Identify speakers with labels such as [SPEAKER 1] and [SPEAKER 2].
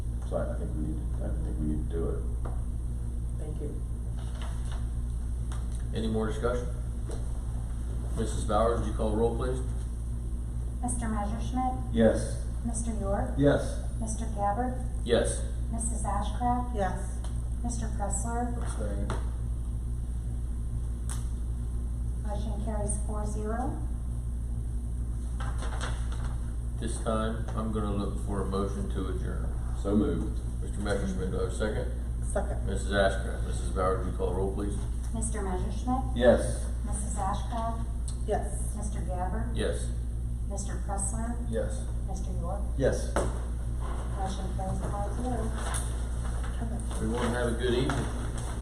[SPEAKER 1] So I, I think we need, to- I think we need to do it.
[SPEAKER 2] Thank you.
[SPEAKER 3] Any more discussion? Mrs. Bowers, would you call the roll, please?
[SPEAKER 4] Mr. Messerschmidt,
[SPEAKER 1] Yes.
[SPEAKER 4] Mr. York,
[SPEAKER 1] Yes.
[SPEAKER 4] Mr. Gabbard,
[SPEAKER 3] Yes.
[SPEAKER 4] Mrs. Ashcraft,
[SPEAKER 2] Yes.
[SPEAKER 4] Mr. Pressler.
[SPEAKER 3] Abstain.
[SPEAKER 4] Motion carries four zero.
[SPEAKER 3] This time, I'm gonna look for a motion to adjourn.
[SPEAKER 1] So moved.
[SPEAKER 3] Mr. Messerschmidt, do I have a second?
[SPEAKER 2] Second.
[SPEAKER 3] Mrs. Ashcraft, Mrs. Bowers, would you call the roll, please?
[SPEAKER 4] Mr. Messerschmidt,
[SPEAKER 1] Yes.
[SPEAKER 4] Mrs. Ashcraft,
[SPEAKER 2] Yes.
[SPEAKER 4] Mr. Gabbard,
[SPEAKER 3] Yes.
[SPEAKER 4] Mr. Pressler,
[SPEAKER 1] Yes.
[SPEAKER 4] Mr. York.
[SPEAKER 1] Yes.
[SPEAKER 4] Motion carries five zero.
[SPEAKER 3] Everyone have a good evening.